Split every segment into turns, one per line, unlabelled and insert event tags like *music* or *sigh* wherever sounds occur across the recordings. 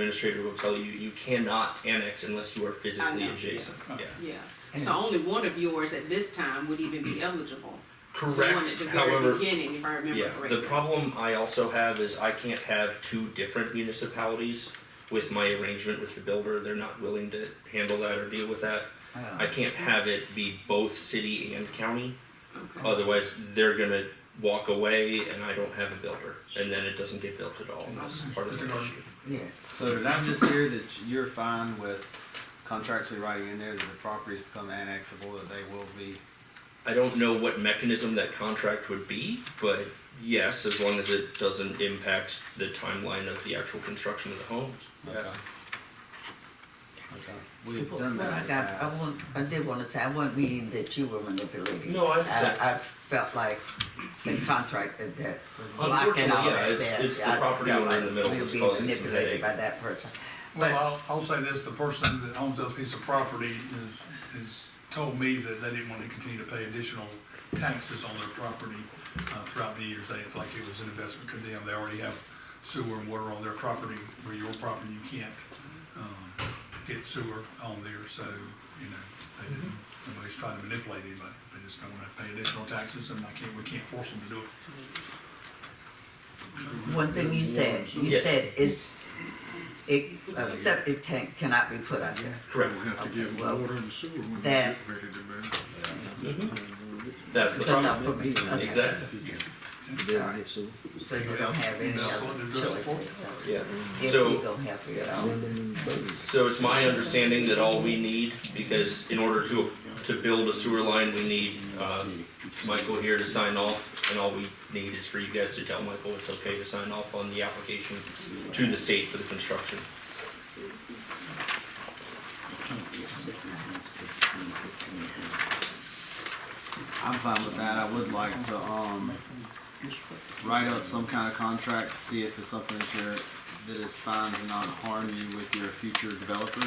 administrator will tell you, you cannot annex unless you are physically
I know.
adjacent, yeah.
Yeah, so only one of yours at this time would even be eligible. The one at
Correct,
the very
however,
beginning, if I remember
yeah, the
correctly.
problem I also have is I can't have two different municipalities with my arrangement with the builder, they're not willing to handle that or deal with that.
Ah,
I can't have it be both city and county,
Okay,
otherwise they're gonna walk away and I don't have a builder, and then it doesn't get built at all, and that's part of the issue.
Yes.
So did I just hear that you're fine with contractually writing in there that the properties become annexable, that they will be?
I don't know what mechanism that contract would be, but yes, as long as it doesn't impact the timeline of the actual construction of the homes.
Okay. Okay. We've
Well,
done that
I
in the
got, I
past.
want, I did wanna say, I wasn't meaning that you were manipulating.
No, I understand.
I, I felt like the contract that, that was locked
Unfortunately,
and all
yeah,
that.
it's-
that
it's the
I
property
felt
owner in
like
the middle
we were
that's
being
causing some headache.
Manipulated by that person. But-
Well, I'll, I'll say this, the person that owns that piece of property is, is told me that they didn't wanna continue to pay additional taxes on their property, uh, throughout the years, they, felt like it was an investment to them, they already have sewer and water on their property, where your property, you can't, um, get sewer on there, so, you know, they didn't, nobody's trying to manipulate anybody, they just don't wanna pay additional taxes, and I can't, we can't force them to do it.
One thing you said, you
Yeah.
said is, it, a septic tank cannot be put out there.
Correct.
We have to give
Well,
water and sewer when we
that-
get ready to build.
Mm-hmm. That's the
So that
problem.
would be, okay.
Exactly.
Alright. So you don't have any
That's
other
what they're dressed
choice.
for.
Yeah.
If
So-
you don't have it at all.
So it's my understanding that all we need, because in order to, to build a sewer line, we need, uh, Michael here to sign off, and all we need is for you guys to tell Michael it's okay to sign off on the application to the state for the construction.
I'm fine with that, I would like to, um, write up some kind of contract, to see if it's something that you're, that is fine to not harm you with your future developer,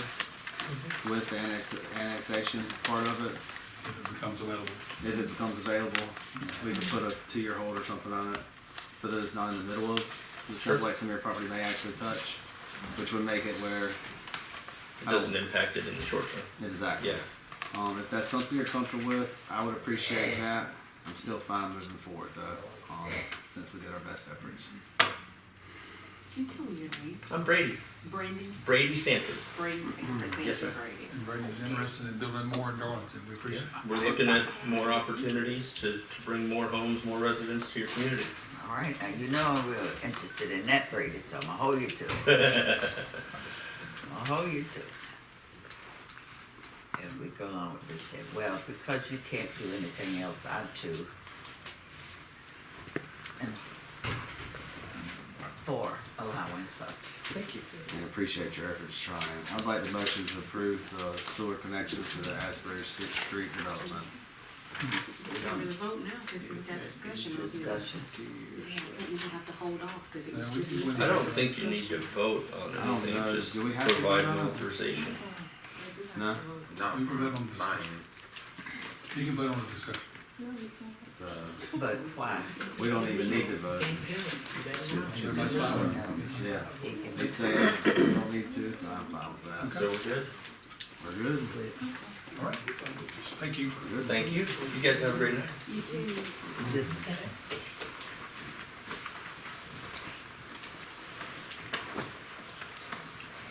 Mm-hmm.
with the annex, annexation part of it,
If it becomes available.
if it becomes available, we can put a two-year hold or something on it, so that it's not in the middle of, the stuff like some of your property may actually touch, which would make it where,
It doesn't impact it in the short term.
exactly.
Yeah.
Um, if that's something you're comfortable with, I would appreciate that. I'm still fine moving forward though, um, since we did our best efforts.
you tell me your name,
I'm Brady.
Brandon,
Brady Sanford.
Brandon Sanford, thank
Yes,
you,
ma'am.
Brady.
And Brady's interested in building more in Darlington, we appreciate it.
We're looking at more opportunities to, to bring more homes, more residents to your community.
All right, now you know I'm real interested in that Brady, so I'm gonna hold you to it. I'll hold you to it. And we go along with this, and well, because you can't do anything else, I too. And for allowing such.
And appreciate your efforts trying. I'd like the motion to approve the sewer connection to the Asbury Street development.
We can really vote now, because we got discussion. over here.
Discussion.
Yeah, I think we have to hold off, because it
No,
was
we
just.
can win.
I don't think you need to vote on
I don't
anything,
know.
just
Do we have to
provide
vote
an
on it?
authorization.
No?
Not
You can vote on the discussion. You can vote on the discussion.
But why?
Uh, We don't even need to vote.
Everybody's fine with it.
Yeah.
He can
They
be
say we don't need to, so I'm fine with that.
So we're good?
We're good.
All right. Thank you.
We're good.
Thank you. You guys have a great night.
You too.
this.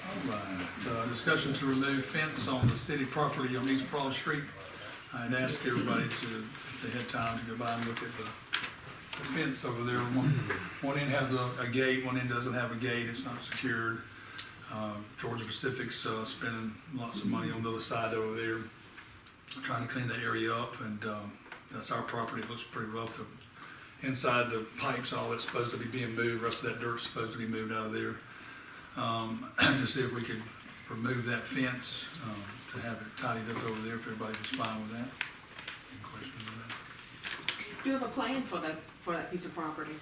All right. Uh, Discussion to remove fence on the city property on East Broad Street. I'd ask everybody to, if they had time, to go by and look at the the fence over there. One, one end has a, a gate, one end doesn't have a gate, it's not secured. Uh, Georgia Pacific's uh, spending lots of money on the other side over there, trying to clean that area up, and um, that's our property, it looks pretty rough. The- Inside the pipes, all that's supposed to be being moved, rest of that dirt's supposed to be moved out of there. Um, *clears throat* To see if we could remove that fence, um, to have it tidied up over there, if everybody was fine with that. Any questions on that?
Do you have a plan for that, for that piece of property?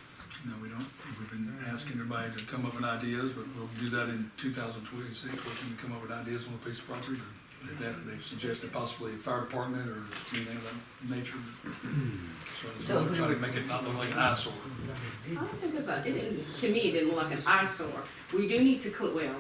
No, we don't. We've been asking everybody to come up with ideas, but we'll do that in two thousand twenty-six, we can come up with ideas on a piece of property to They've, had- they've suggested possibly a fire department or anything of that nature. *clears throat* So I just
So
wanna
we
try to
would-
make it not look like an eyesore.
I don't think it's a, it didn't, to me, it didn't look like an eyesore. We do need to, cl- well,